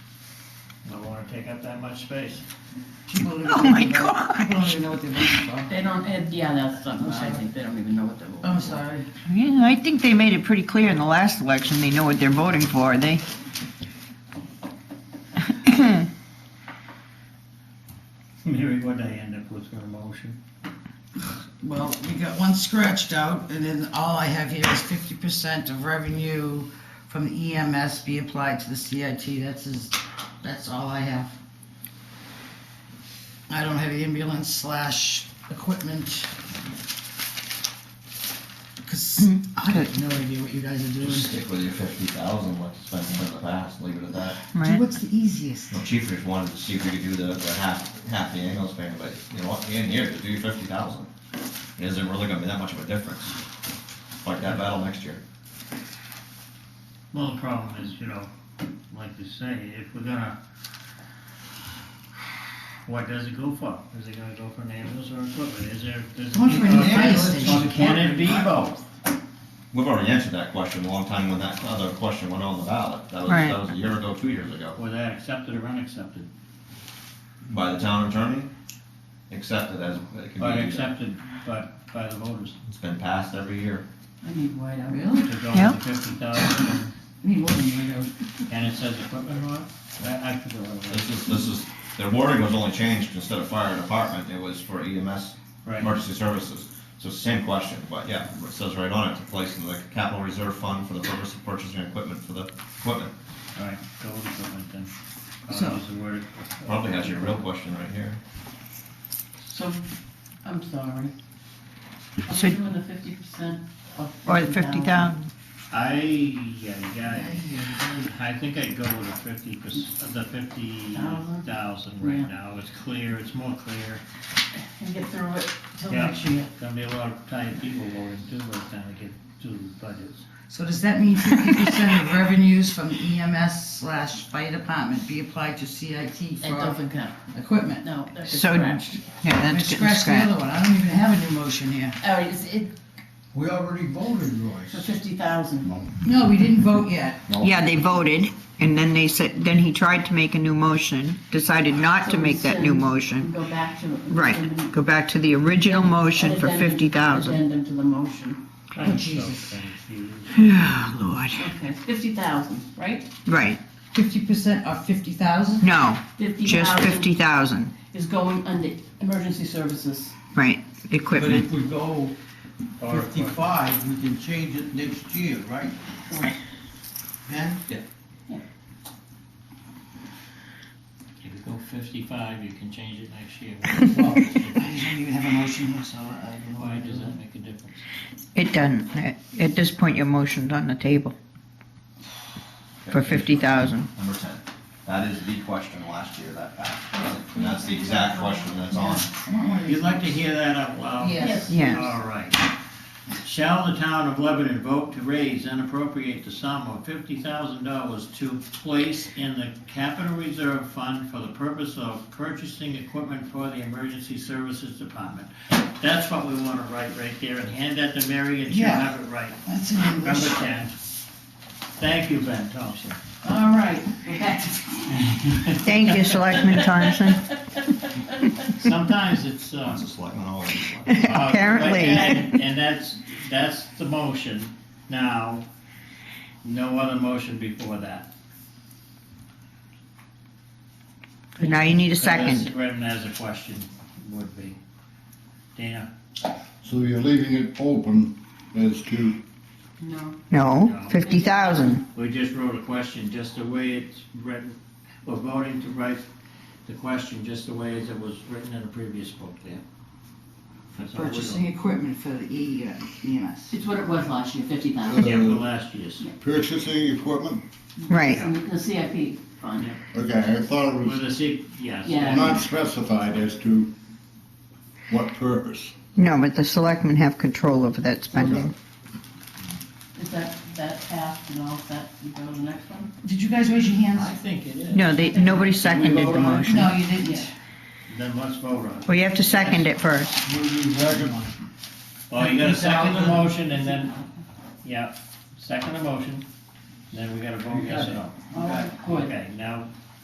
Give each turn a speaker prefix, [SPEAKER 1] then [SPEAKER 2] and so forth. [SPEAKER 1] don't wanna take up that much space.
[SPEAKER 2] Oh my
[SPEAKER 3] I don't
[SPEAKER 2] gosh.
[SPEAKER 3] even know what the limits are.
[SPEAKER 4] They don't, and, yeah, that's something I think they don't even know what they're.
[SPEAKER 2] Oh.
[SPEAKER 3] I'm sorry.
[SPEAKER 2] Yeah, I think they made it pretty clear in the last election, they know what they're voting for, they.
[SPEAKER 1] Mary, what did I end up with for a motion?
[SPEAKER 3] Well, we got one scratched out, and then all I have here is fifty percent of revenue from the EMS be applied to the CIT. That's is, that's all I have. I don't have ambulance slash equipment. Cause I have no idea what you guys are
[SPEAKER 5] Just
[SPEAKER 3] doing.
[SPEAKER 5] stick with your fifty thousand, what you spent in the past, leave it at that.
[SPEAKER 3] Do
[SPEAKER 2] Right,
[SPEAKER 3] what's the easiest?
[SPEAKER 5] Well, Chief just wanted to see if we could do the, the half, half the ambulance payment, but you know what, in here, just do your fifty thousand. It isn't really gonna be that much of a difference. Like that battle next year.
[SPEAKER 1] Well, the problem is, you know, like you say, if we're gonna, what does it go for? Is it gonna go for an ambulance or equipment? Is there, does it?
[SPEAKER 3] Going for an
[SPEAKER 1] or
[SPEAKER 3] area
[SPEAKER 1] Or
[SPEAKER 3] station.
[SPEAKER 1] can it be both?
[SPEAKER 5] We've already answered that question a long time when that other question went on the ballot. That was,
[SPEAKER 2] Right.
[SPEAKER 5] that was a year ago, two years ago.
[SPEAKER 1] Were they accepted or unaccepted?
[SPEAKER 5] By the town attorney, accepted as, it
[SPEAKER 1] But
[SPEAKER 5] can be,
[SPEAKER 1] accepted by, by the voters
[SPEAKER 5] it's been passed every year.
[SPEAKER 4] I need white out. Really?
[SPEAKER 1] to go
[SPEAKER 2] Yeah.
[SPEAKER 1] with the fifty thousand,
[SPEAKER 4] I need more than white out.
[SPEAKER 1] and it says equipment or what? I, I forget what it was.
[SPEAKER 5] This is, this is, their wording was only changed, instead of fire department, it was for E EMS,
[SPEAKER 1] Right,
[SPEAKER 5] emergency services. So it's the same question, but yeah, it says right on it, to place in the capital reserve fund for the purpose of purchasing equipment for the equipment.
[SPEAKER 1] alright, go with equipment then.
[SPEAKER 3] So-
[SPEAKER 1] I'll use the word.
[SPEAKER 5] Probably has your real question right here.
[SPEAKER 4] So, I'm sorry. Are
[SPEAKER 2] So-
[SPEAKER 4] we doing the fifty percent of?
[SPEAKER 2] or the fifty thousand,
[SPEAKER 1] I, yeah, I think I'd go with the fifty, the fifty thousand
[SPEAKER 4] Yeah.
[SPEAKER 1] right now, it's clear, it's more clear.
[SPEAKER 4] And get through it till
[SPEAKER 1] Yeah.
[SPEAKER 4] next year.
[SPEAKER 1] Gonna be a lot of tired people voting too by the time we get to the budgets.
[SPEAKER 3] So does that mean fifty percent of revenues from EMS slash fire department be applied to CIT
[SPEAKER 4] It
[SPEAKER 3] for
[SPEAKER 4] doesn't count.
[SPEAKER 3] equipment?
[SPEAKER 4] No, that's
[SPEAKER 2] So-
[SPEAKER 4] scratched.
[SPEAKER 2] yeah,
[SPEAKER 3] I
[SPEAKER 2] that's getting
[SPEAKER 3] scratched the other
[SPEAKER 2] scrapped.
[SPEAKER 3] one. I don't even have a new motion here.
[SPEAKER 4] All right, is Oh, it
[SPEAKER 6] We already voted,
[SPEAKER 4] for
[SPEAKER 6] Royce.
[SPEAKER 4] fifty thousand?
[SPEAKER 3] No, we didn't vote yet.
[SPEAKER 2] Yeah, they voted, and then they said, then he tried to make a new motion, decided not to make that new motion.
[SPEAKER 4] Go back to.
[SPEAKER 2] Right, go back to the original motion for
[SPEAKER 4] Addendum-
[SPEAKER 2] fifty thousand.
[SPEAKER 4] Addendum to the motion.
[SPEAKER 1] I'm so
[SPEAKER 3] Oh, Jesus.
[SPEAKER 1] confused.
[SPEAKER 2] Yeah, Oh, Lord,
[SPEAKER 4] Okay, fifty thousand, right?
[SPEAKER 2] right,
[SPEAKER 3] Fifty percent of fifty thousand?
[SPEAKER 2] no,
[SPEAKER 4] Fifty
[SPEAKER 2] just
[SPEAKER 4] thousand
[SPEAKER 2] fifty thousand,
[SPEAKER 4] is going under emergency services.
[SPEAKER 2] right,
[SPEAKER 6] But
[SPEAKER 2] equipment.
[SPEAKER 6] if we go
[SPEAKER 1] Or equipment.
[SPEAKER 6] fifty-five, we can change it next year, right?
[SPEAKER 4] Right.
[SPEAKER 6] Ben?
[SPEAKER 1] If you go fifty-five, you can change it next year.
[SPEAKER 3] Well, I don't even have a motion here, so I don't know
[SPEAKER 1] Why
[SPEAKER 3] why I
[SPEAKER 1] does
[SPEAKER 3] did
[SPEAKER 1] that
[SPEAKER 3] that.
[SPEAKER 1] make a difference?
[SPEAKER 2] It doesn't, at at this point, your motion's on the table for fifty thousand.
[SPEAKER 5] Number ten. That is the question last year that passed. And that's the exact question that's on.
[SPEAKER 1] You'd like to hear that out loud?
[SPEAKER 3] Yes.
[SPEAKER 2] Yes.
[SPEAKER 1] All right. Shall the town of Lebanon vote to raise and appropriate the sum of fifty thousand dollars to place in the capital reserve fund for the purpose of purchasing equipment for the emergency services department? That's what we wanna write right there and hand that to Mary and she'll
[SPEAKER 3] Yeah.
[SPEAKER 1] have it right.
[SPEAKER 3] That's an
[SPEAKER 1] Number
[SPEAKER 3] English.
[SPEAKER 1] ten. Thank you, Ben Thompson.
[SPEAKER 4] All right, we're back to
[SPEAKER 2] Thank you, Selectman Thompson.
[SPEAKER 1] Sometimes it's, uh,
[SPEAKER 5] It's a selectman, all of these.
[SPEAKER 1] Uh,
[SPEAKER 2] Apparently.
[SPEAKER 1] And and that's, that's the motion now, no other motion before that.
[SPEAKER 2] Now you need a
[SPEAKER 1] Unless
[SPEAKER 2] second.
[SPEAKER 1] Brendan has a question, would be. Dana?
[SPEAKER 7] So you're leaving it open as to
[SPEAKER 4] No,
[SPEAKER 2] No, fifty thousand.
[SPEAKER 1] We just wrote a question, just the way it's written, we're voting to write the question just the way as it was written in the previous book there. That's all we're
[SPEAKER 3] Purchasing equipment for the E- uh, EMS.
[SPEAKER 4] it's what it was last year, fifty thousand.
[SPEAKER 1] doing. Yeah, for last year's,
[SPEAKER 7] purchasing equipment?
[SPEAKER 2] Right,
[SPEAKER 4] The CIP fund.
[SPEAKER 7] Okay, I thought it
[SPEAKER 1] with
[SPEAKER 7] was
[SPEAKER 1] a C, yes.
[SPEAKER 4] Yeah.
[SPEAKER 7] not specified as to what purpose.
[SPEAKER 2] no, but the selectmen have control over that spending.
[SPEAKER 4] Is that, that passed and all that, you go to the next one?
[SPEAKER 3] Did you guys raise your
[SPEAKER 1] I
[SPEAKER 3] hands?
[SPEAKER 1] think it is.
[SPEAKER 2] No, they, nobody seconded the motion.
[SPEAKER 3] No, you didn't.
[SPEAKER 1] Then let's vote on it.
[SPEAKER 2] Well, you have to second it first.
[SPEAKER 1] Well, you gotta second the
[SPEAKER 3] 50,000.
[SPEAKER 1] motion and then, yeah, second the motion, then we gotta vote yes or no.
[SPEAKER 4] Oh, good.
[SPEAKER 1] Okay, now,